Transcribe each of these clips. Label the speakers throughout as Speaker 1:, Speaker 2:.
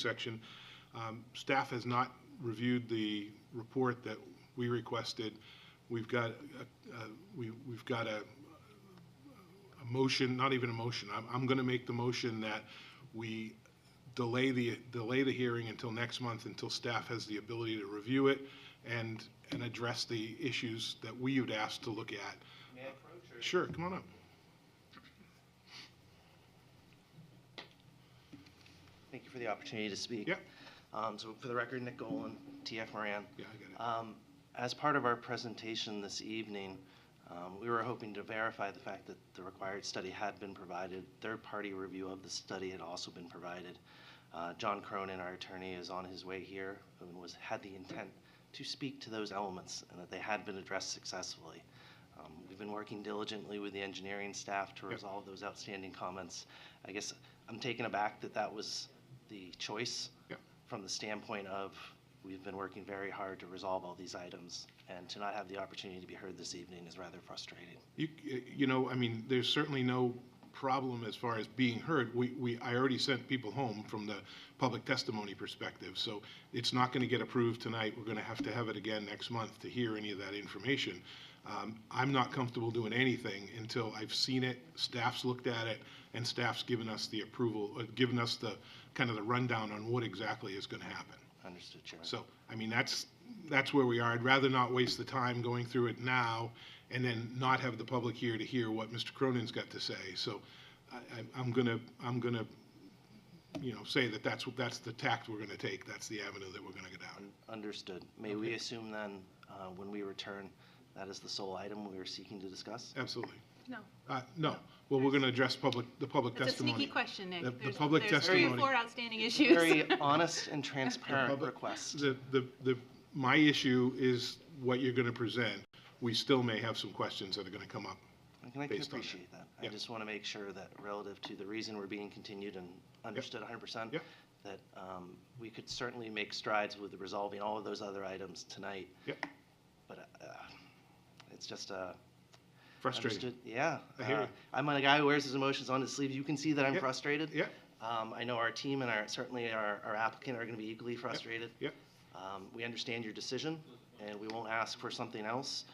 Speaker 1: section. Um, Staff has not reviewed the report that we requested. We've got, a- a- we- we've got a a motion, not even a motion. I'm, I'm going to make the motion that we delay the, delay the hearing until next month, until staff has the ability to review it and, and address the issues that we had asked to look at.
Speaker 2: May I approach or?
Speaker 1: Sure, come on up.
Speaker 2: Thank you for the opportunity to speak.
Speaker 1: Yeah.
Speaker 2: Um, so for the record, Nick Golan, TF Moran.
Speaker 1: Yeah, I got
Speaker 2: Um, as part of our presentation this evening, um, we were hoping to verify the fact that the required study had been provided. Third-party review of the study had also been provided. Uh, John Cronin, our attorney, is on his way here and was, had the intent to speak to those elements and that they had been addressed successfully. Um, We've been working diligently with the engineering staff to
Speaker 1: Yep.
Speaker 2: resolve those outstanding comments. I guess I'm taken aback that that was the choice
Speaker 1: Yep.
Speaker 2: from the standpoint of, we've been working very hard to resolve all these items, and to not have the opportunity to be heard this evening is rather frustrating.
Speaker 1: it. You, you know, I mean, there's certainly no problem as far as being heard. We, we, I already sent people home from the public testimony perspective, so it's not going to get approved tonight. We're going to have to have it again next month to hear any of that information. Um, I'm not comfortable doing anything until I've seen it, staff's looked at it, and staff's given us the approval, uh, given us the, kind of the rundown on what exactly is going to happen.
Speaker 2: Understood, Chairman.
Speaker 1: So, I mean, that's, that's where we are. I'd rather not waste the time going through it now and then not have the public here to hear what Mr. Cronin's got to say. So I, I- I'm gonna, I'm gonna, you know, say that that's, that's the tact we're gonna take. That's the avenue that we're gonna go down.
Speaker 2: Un- Understood. May we assume then, uh, when we return, that is the sole item we are seeking to discuss?
Speaker 1: Absolutely.
Speaker 3: No,
Speaker 1: Uh, no, well, we're gonna address public, the public
Speaker 3: it's a
Speaker 1: testimony.
Speaker 3: sneaky question, Nick.
Speaker 1: The- the
Speaker 3: There's-
Speaker 1: public
Speaker 3: there's three or
Speaker 1: testimony.
Speaker 3: four outstanding issues.
Speaker 2: Very honest and transparent
Speaker 1: public-
Speaker 2: request.
Speaker 1: The, the, the, my issue is what you're gonna present. We still may have some questions that are gonna come up.
Speaker 2: And I can
Speaker 1: based on that.
Speaker 2: appreciate that. I
Speaker 1: Yeah.
Speaker 2: just want to make sure that relative to the reason we're being continued and understood 100%,
Speaker 1: Yep.
Speaker 2: that um, we could certainly make strides with resolving all of those other items tonight,
Speaker 1: Yep,
Speaker 2: but uh, it's just a,
Speaker 1: frustrating.
Speaker 2: Understood. Yeah.
Speaker 1: I hear
Speaker 2: Uh,
Speaker 1: you.
Speaker 2: I'm a guy who wears his emotions on his sleeve. You can see that I'm
Speaker 1: Yeah.
Speaker 2: frustrated.
Speaker 1: Yeah,
Speaker 2: Um, I know our team and our, certainly our, our applicant are going to be equally frustrated.
Speaker 1: yep.
Speaker 2: Um, we understand your decision and we won't ask for something else.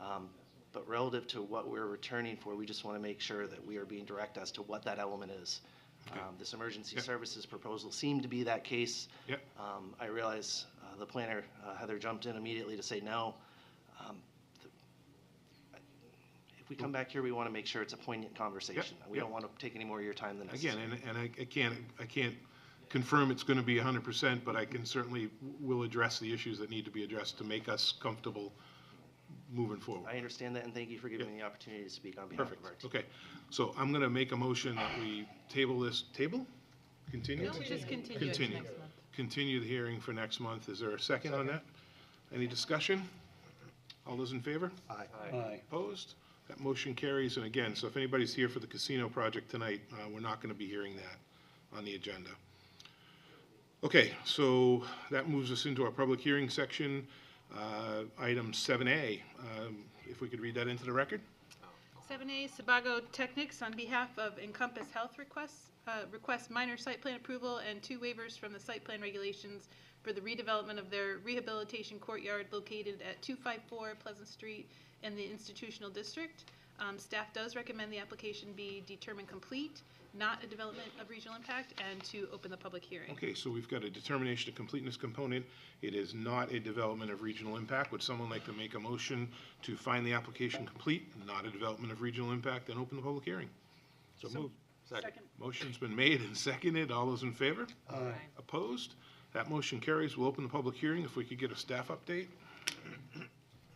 Speaker 2: Um, but relative to what we're returning for, we just want to make sure that we are being direct as to what that element is. Um, this emergency
Speaker 1: Yeah.
Speaker 2: services proposal seemed to be that case.
Speaker 1: Yeah.
Speaker 2: Um, I realize uh, the planner, uh, Heather, jumped in immediately to say no. Um, th- if we come back here, we want to make sure it's a poignant conversation. We
Speaker 1: yeah.
Speaker 2: don't want to take any more of your time than necessary.
Speaker 1: Again, and, and I, I can't, I can't confirm it's gonna be hundred percent, but I can certainly, will address the issues that need to be addressed to make us comfortable moving forward.
Speaker 2: I understand that, and thank you for giving me the opportunity to speak on behalf of
Speaker 1: Perfect,
Speaker 2: our team.
Speaker 1: okay. So I'm gonna make a motion that we table this, table? Continue?
Speaker 3: No, we just continue it to
Speaker 1: Continue.
Speaker 3: next month.
Speaker 1: Continue the hearing for next month. Is there a second on that? Any discussion? All those in favor?
Speaker 4: Aye.
Speaker 1: Opposed? That motion carries, and again, so if anybody's here for the casino project tonight, uh, we're not going to be hearing that on the agenda. Okay, so that moves us into our public hearing section, uh, item 7A. Um, If we could read that into the record?
Speaker 3: 7A, Sabago Technics on behalf of Encompass Health requests, uh, requests minor site plan approval and two waivers from the site plan regulations for the redevelopment of their rehabilitation courtyard located at 254 Pleasant Street in the institutional district. Um, Staff does recommend the application be determined complete, not a development of regional impact, and to open the public hearing.
Speaker 1: Okay, so we've got a determination of completeness component. It is not a development of regional impact. Would someone like to make a motion to find the application complete, not a development of regional impact, and open the public hearing? So moved.
Speaker 3: Second.
Speaker 1: Motion's been made and seconded. All those in favor? Opposed? That motion carries. We'll open the public hearing if we could get a staff update.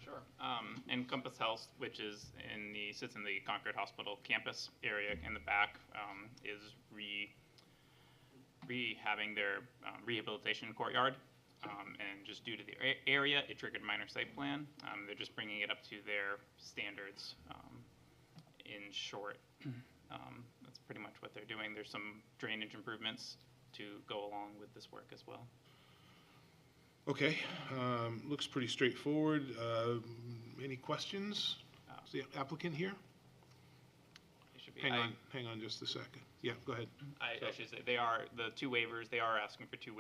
Speaker 5: Sure. Um, Encompass Health, which is in the, sits in the Concord Hospital campus area in the back, um, is re, rehabbing their um, rehabilitation courtyard. Um, and just due to the a- area, it triggered minor site plan. Um, they're just bringing it up to their standards, um, in short. Um, that's pretty much what they're doing. There's some drainage improvements to go along with this work as well.
Speaker 1: Okay, um, looks pretty straightforward. Uh, Any questions? Is the applicant here?
Speaker 5: It should be-
Speaker 1: Hang
Speaker 5: I-
Speaker 1: on, hang on just a second. Yeah, go ahead.
Speaker 5: I, I should say, they are, the two waivers, they are asking for two waivers